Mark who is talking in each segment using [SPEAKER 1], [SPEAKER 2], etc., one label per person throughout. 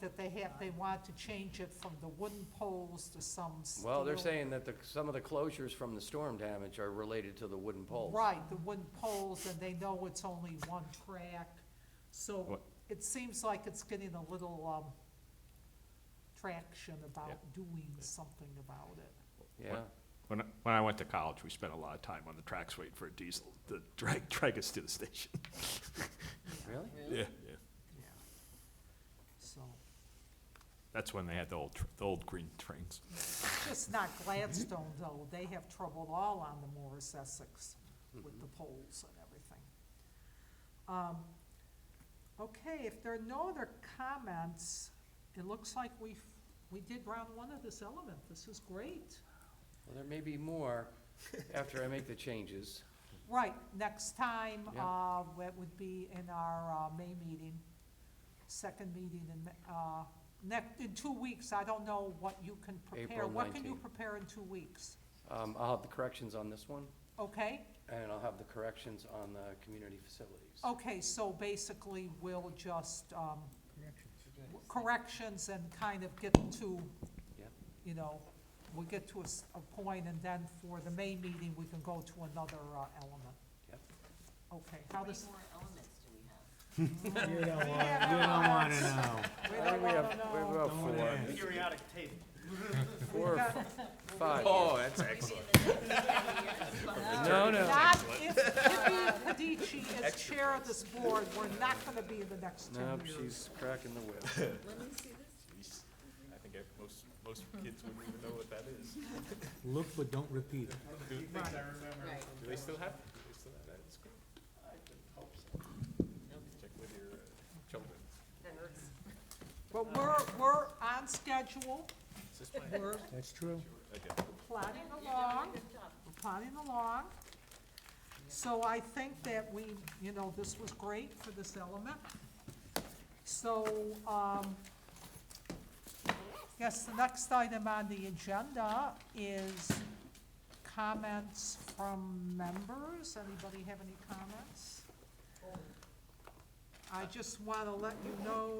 [SPEAKER 1] that they have, they want to change it from the wooden poles to some steel.
[SPEAKER 2] Well, they're saying that the, some of the closures from the storm damage are related to the wooden poles.
[SPEAKER 1] Right, the wooden poles, and they know it's only one track. So
[SPEAKER 3] What-
[SPEAKER 1] it seems like it's getting a little, um, traction about doing something about it.
[SPEAKER 2] Yeah,
[SPEAKER 3] When, I- when I went to college, we spent a lot of time on the tracks waiting for a diesel to drag, drag us to the station.
[SPEAKER 2] really?
[SPEAKER 3] Yeah.
[SPEAKER 1] Yeah. So,
[SPEAKER 3] That's when they had the old, tr- the old green trains.
[SPEAKER 1] just not Gladstone, though, they have trouble all on the Morris Essex
[SPEAKER 2] Hmm.
[SPEAKER 1] with the poles and everything. Um, Okay, if there are no other comments, it looks like we've, we did round one of this element, this is great.
[SPEAKER 2] Well, there may be more after I make the changes.
[SPEAKER 1] Right, next time,
[SPEAKER 2] Yeah.
[SPEAKER 1] uh, that would be in our, uh, May meeting, second meeting in, Ma- uh, next, in two weeks, I don't know what you can prepare.
[SPEAKER 2] April
[SPEAKER 1] What can you
[SPEAKER 2] 19.
[SPEAKER 1] prepare in two weeks?
[SPEAKER 2] Um, I'll have the corrections on this one,
[SPEAKER 1] Okay,
[SPEAKER 2] and I'll have the corrections on the community facilities.
[SPEAKER 1] okay, so basically, we'll just, um, w- corrections and kind of get to,
[SPEAKER 2] Yeah.
[SPEAKER 1] you know, we'll get to a, s- a point, and then for the May meeting, we can go to another, uh, element.
[SPEAKER 2] Yep.
[SPEAKER 1] Okay, how does?
[SPEAKER 4] How many more elements do we have?
[SPEAKER 5] You don't want,
[SPEAKER 1] Yeah.
[SPEAKER 5] you don't want to know.
[SPEAKER 1] We
[SPEAKER 2] I think
[SPEAKER 1] don't
[SPEAKER 2] we have-
[SPEAKER 1] wanna know.
[SPEAKER 2] we have about
[SPEAKER 5] Don't wanna
[SPEAKER 2] four,
[SPEAKER 5] ask.
[SPEAKER 6] Periodic table.
[SPEAKER 2] four, or f- five.
[SPEAKER 5] Oh,
[SPEAKER 3] that's
[SPEAKER 2] No, no.
[SPEAKER 1] Not if Vivian Padici is chair of this board, we're not gonna be in the next ten
[SPEAKER 2] Nope,
[SPEAKER 1] years.
[SPEAKER 2] she's cracking the whip.
[SPEAKER 4] Let me see this.
[SPEAKER 3] I think most, most kids wouldn't even know what that is.
[SPEAKER 5] Look, but don't repeat it.
[SPEAKER 4] Right.
[SPEAKER 3] Do they still have, do they still have that at school? Check with your children.
[SPEAKER 4] That hurts.
[SPEAKER 1] But we're, we're on schedule, we're
[SPEAKER 5] That's true.
[SPEAKER 1] plodding along, we're plodding along. So I think that we, you know, this was great for this element. So, um, yes, the next item on the agenda is comments from members. Anybody have any comments? I just want to let you know,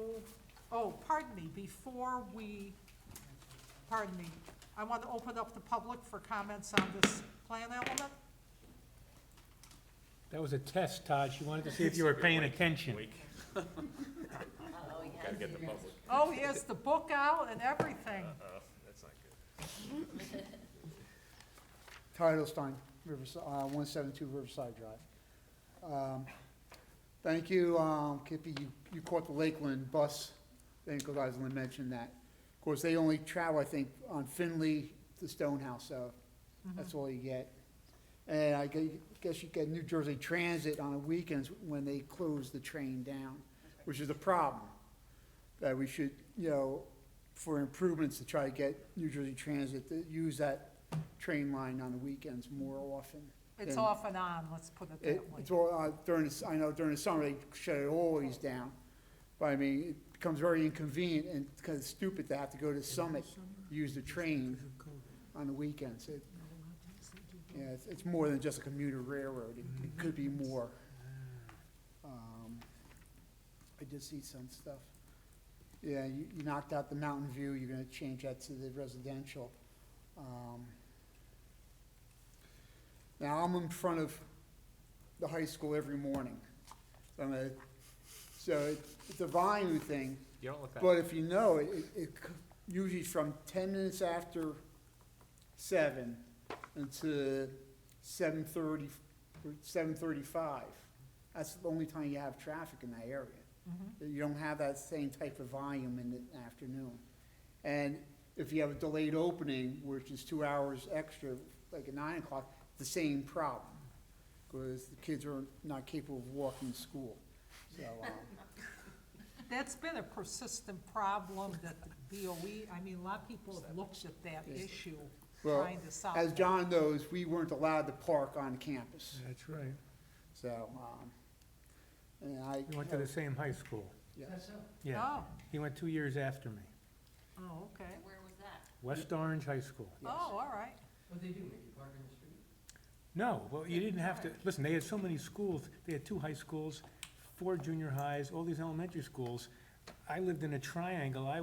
[SPEAKER 1] oh, pardon me, before we, pardon me, I want to open up the public for comments on this plan element.
[SPEAKER 5] That was a test, Todd. She wanted to see if you were paying attention.
[SPEAKER 4] Uh-oh, yeah.
[SPEAKER 3] Gotta get the public.
[SPEAKER 1] Oh, he has the book out and everything.
[SPEAKER 7] Uh-huh.
[SPEAKER 3] That's not good.
[SPEAKER 7] Teitelstein, Riverside, uh, one seventy-two Riverside Drive. Um, Thank you, um, Kippy, you, you caught the Lakeland bus, I think Gosselin mentioned that. Of course, they only travel, I think, on Finley to Stonehouse, so that's all you get. And I gue- guess you get New Jersey Transit on the weekends when they close the train down, which is a problem. That we should, you know, for improvements to try to get New Jersey Transit to use that train line on the weekends more often.
[SPEAKER 1] It's
[SPEAKER 7] than-
[SPEAKER 1] off and on, let's put it
[SPEAKER 7] it,
[SPEAKER 1] that way.
[SPEAKER 7] it's all, uh, during, the s- I know during the summer, they shut it always down. But I mean, it becomes very inconvenient and it's kind of stupid to have to go to Summit, use the train on the weekends. It- Yeah, it's, it's more than just a commuter railroad. It it could be more. Um, I did see some stuff. Yeah, you, you knocked out the Mountain View, you're gonna change that to the residential. Um, Now, I'm in front of the high school every morning. So I'm a- So it- it's a volume thing,
[SPEAKER 3] You don't look that.
[SPEAKER 7] but if you know, it, it- it c- usually from ten minutes after seven until seven thirty, seven thirty-five. That's the only time you have traffic in that area. You don't have that same type of volume in the afternoon. And if you have a delayed opening, which is two hours extra, like at nine o'clock, the same problem. Because the kids are not capable of walking to school, so, um,
[SPEAKER 1] That's been a persistent problem that the BOE, I mean, a lot of people have looked at that
[SPEAKER 7] Yes.
[SPEAKER 1] issue,
[SPEAKER 7] Well,
[SPEAKER 1] trying to solve
[SPEAKER 7] As
[SPEAKER 1] it.
[SPEAKER 7] John knows, we weren't allowed to park on campus,
[SPEAKER 5] That's right.
[SPEAKER 7] so, um, and I.
[SPEAKER 5] We went to the same high school.
[SPEAKER 7] Yes.
[SPEAKER 5] Yeah.
[SPEAKER 1] Oh,
[SPEAKER 5] He went two years after me.
[SPEAKER 1] oh, okay.
[SPEAKER 4] Where was that?
[SPEAKER 5] West Orange High School.
[SPEAKER 1] Oh, all right.
[SPEAKER 5] No, well, you didn't have to, listen, they had so many schools, they had two high schools, four junior highs, all these elementary schools. I lived in a triangle, I